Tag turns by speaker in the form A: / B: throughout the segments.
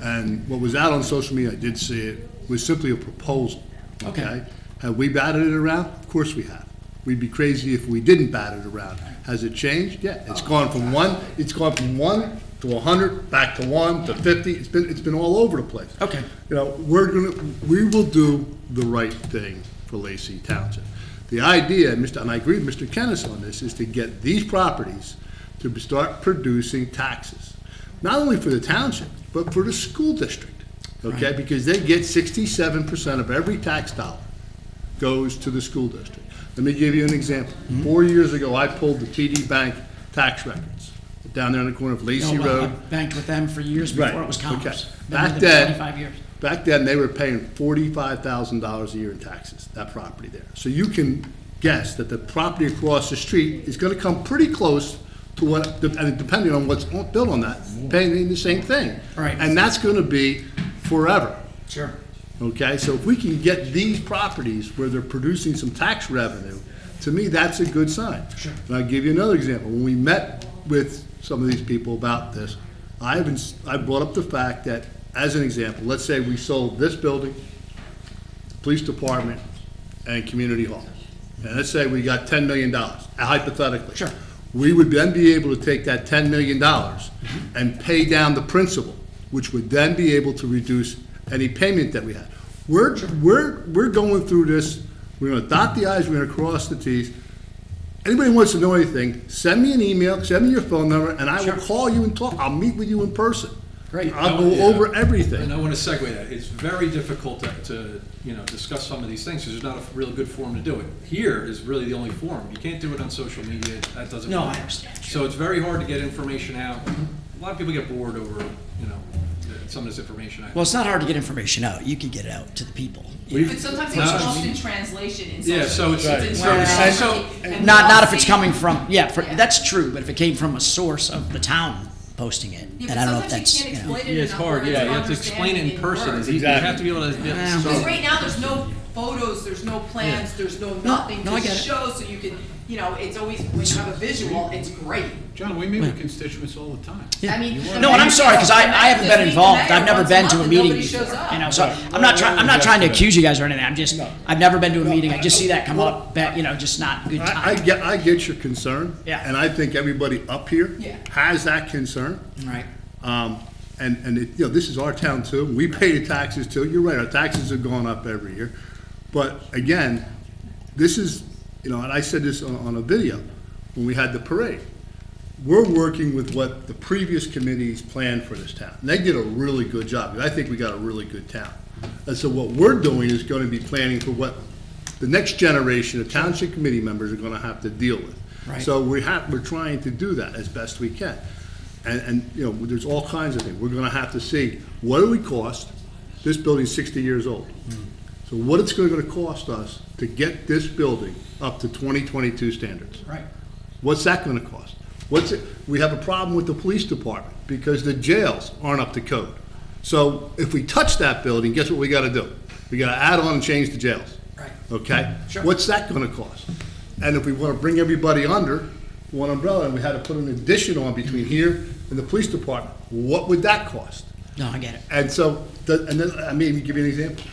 A: And what was out on social media, I did see it, was simply a proposal.
B: Okay.
A: Have we batted it around? Of course we have. We'd be crazy if we didn't bat it around. Has it changed? Yeah, it's gone from one, it's gone from one to a hundred, back to one to fifty. It's been, it's been all over the place.
B: Okay.
A: You know, we're gonna, we will do the right thing for Lacey Township. The idea, and Mr., and I agree with Mr. Kennis on this, is to get these properties to start producing taxes. Not only for the township, but for the school district, okay? Because they get sixty-seven percent of every tax dollar goes to the school district. Let me give you an example. Four years ago, I pulled the TD Bank tax records down there on the corner of
B: You
A: Lacey
B: know, well, I
A: Road
B: Banked with them for years
A: Right,
B: before it was
A: okay.
B: Commerce. Been
A: Back
B: with them
A: then-
B: Twenty-five years.
A: Back then, they were paying forty-five thousand dollars a year in taxes, that property there. So you can guess that the property across the street is gonna come pretty close to what, and depending on what's on- built on that, paying the same thing.
B: Right.
A: And that's gonna be forever,
B: Sure.
A: okay? So if we can get these properties where they're producing some tax revenue, to me, that's a good sign.
B: Sure.
A: And I'll give you another example. When we met with some of these people about this, I haven't, I brought up the fact that, as an example, let's say we sold this building, police department, and community hall. And let's say we got ten million dollars, hypothetically.
B: Sure.
A: We would then be able to take that ten million dollars and pay down the principal, which would then be able to reduce any payment that we had. We're, we're, we're going through this, we're gonna dot the i's, we're gonna cross the t's. Anybody wants to know anything, send me an email, send me your phone number, and I
B: Sure.
A: will call you and talk, I'll meet with you in person.
B: Great.
A: I'll go over everything.
C: And I want to segue that. It's very difficult to, to, you know, discuss some of these things because there's not a real good forum to do it. Here is really the only forum. You can't do it on social media. That doesn't.
B: No, I
C: work.
B: understand.
C: So it's very hard to get information out. A lot of people get bored over, you know, some of this information. I-
B: Well, it's not hard to get information out. You can get it out to the people.
C: We-
D: But sometimes
C: No.
D: it's lost in translation in social.
C: Yeah, so it's-
D: media.
C: Right.
D: It's
C: so-
D: in
C: so-
D: translation, and
B: Not,
D: we're
B: not
D: all
B: if it's
D: seeing-
B: coming from, yeah, for,
D: Yeah.
B: that's true, but if it came from a source of the town posting it,
D: Yeah,
B: and
D: but
B: I don't know if
D: sometimes
B: that's,
D: you can't
B: you know.
D: explain it
C: Yeah, it's
D: enough
C: hard.
D: words
C: Yeah,
D: to
C: you have to explain it
D: understand
C: in
D: in
C: person.
D: words.
C: You you have to be able to. yeah,
B: Well-
D: Because
C: so-
D: right now, there's no photos, there's no plans, there's no nothing
B: no, I
D: to
B: get it.
D: show, so you can, you know, it's always, when you have a visual, it's great.
E: John, we meet with constituents all the time.
B: Yeah.
D: I mean, the
B: No, and I'm
D: mayor-
B: sorry, because I,
D: the mayor-
B: I haven't
D: the
B: been
D: mayor
B: involved, I've never
D: once
B: been to a
D: month and
B: meeting
D: nobody
B: before,
D: shows up.
B: you know, so, I'm not trying, I'm not trying to accuse you guys or anything, I'm just, I've never been to a meeting, I just see that come up, that, you know, just not good
A: I, I
B: time.
A: get, I get your concern.
B: Yeah.
A: And I think everybody up here
D: Yeah.
A: has that concern.
B: Right,
A: Um, and, and it, you know, this is our town too, we pay the taxes too, you're right, our taxes have gone up every year. But again, this is, you know, and I said this on, on a video, when we had the parade. We're working with what the previous committees planned for this town, and they did a really good job, and I think we got a really good town. And so what we're doing is gonna be planning for what the next generation of township committee members are gonna have to deal with.
B: Right.
A: So we have, we're trying to do that as best we can. And, and, you know, there's all kinds of things. We're gonna have to see, what do we cost? This building's sixty years old.
B: Hmm.
A: So what it's gonna cost us to get this building up to twenty twenty-two standards?
B: right,
A: What's that gonna cost? What's it, we have a problem with the police department because the jails aren't up to code. So if we touch that building, guess what we gotta do? We gotta add on and change the jails.
B: Right.
A: Okay?
B: Sure.
A: What's that gonna cost? And if we wanna bring everybody under one umbrella and we had to put an addition on between here and the police department, what would that cost?
B: no, I get it,
A: And so, the- and then, I mean, give you an example.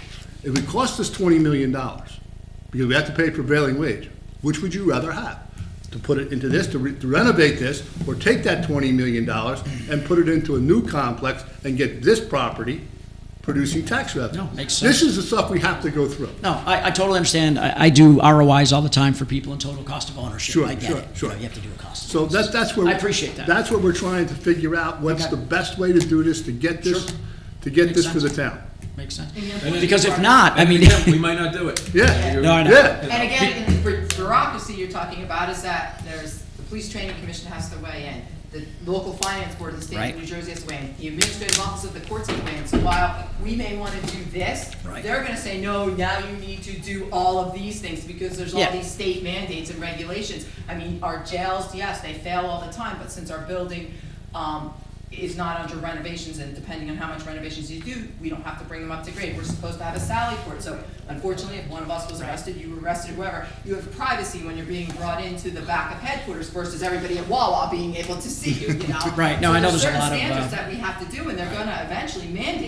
A: It would cost us twenty million dollars, because we have to pay prevailing wage. Which would you rather have? To put it into this, to re- to renovate this, or take that twenty million dollars and put it into a new complex and get this property producing tax revenue?
B: No, makes
A: This is the stuff we have to go through.
B: no, I, I totally understand, I, I do ROIs all the time for people and total cost of ownership,
A: Sure,
B: I get
A: sure,
B: it, you
A: sure.
B: know, you have to do a cost.
A: So that's, that's where.
B: I appreciate that.
A: That's what we're trying to figure out, what's
B: Okay.
A: the best way to do this, to get this,
B: Sure.
A: to get
B: Makes
A: this for the
B: sense.
A: town.
B: Makes sense.
D: then-
B: Because if not, I
C: And
B: mean,
C: again, We might not do it.
A: Yeah.
C: You're-
B: No, I know.
A: Yeah.
D: And again, in the bu- bureaucracy you're talking about is that there's, the police training commission has to weigh in, the local finance board of the state
B: Right.
D: of New Jersey has to weigh in, the administrative office of the courts has to weigh in, so while we may wanna do this,
B: Right.
D: they're gonna say, no, now you need to do all of these things, because there's
B: Yeah.
D: all these state mandates and regulations. I mean, our jails, yes, they fail all the time, but since our building, um, is not under renovations, and depending on how much renovations you do, we don't have to bring them up to grade. We're supposed to have a sally port, so unfortunately, if one of us was arrested, you were arrested, whoever, you have privacy when you're being brought into the back of headquarters versus everybody at Wawa being able to see you, you know?
B: Right, no,
D: So
B: I know
D: there's
B: there's a
D: certain
B: lot of, uh,
D: standards that we have to do, and they're gonna eventually mandate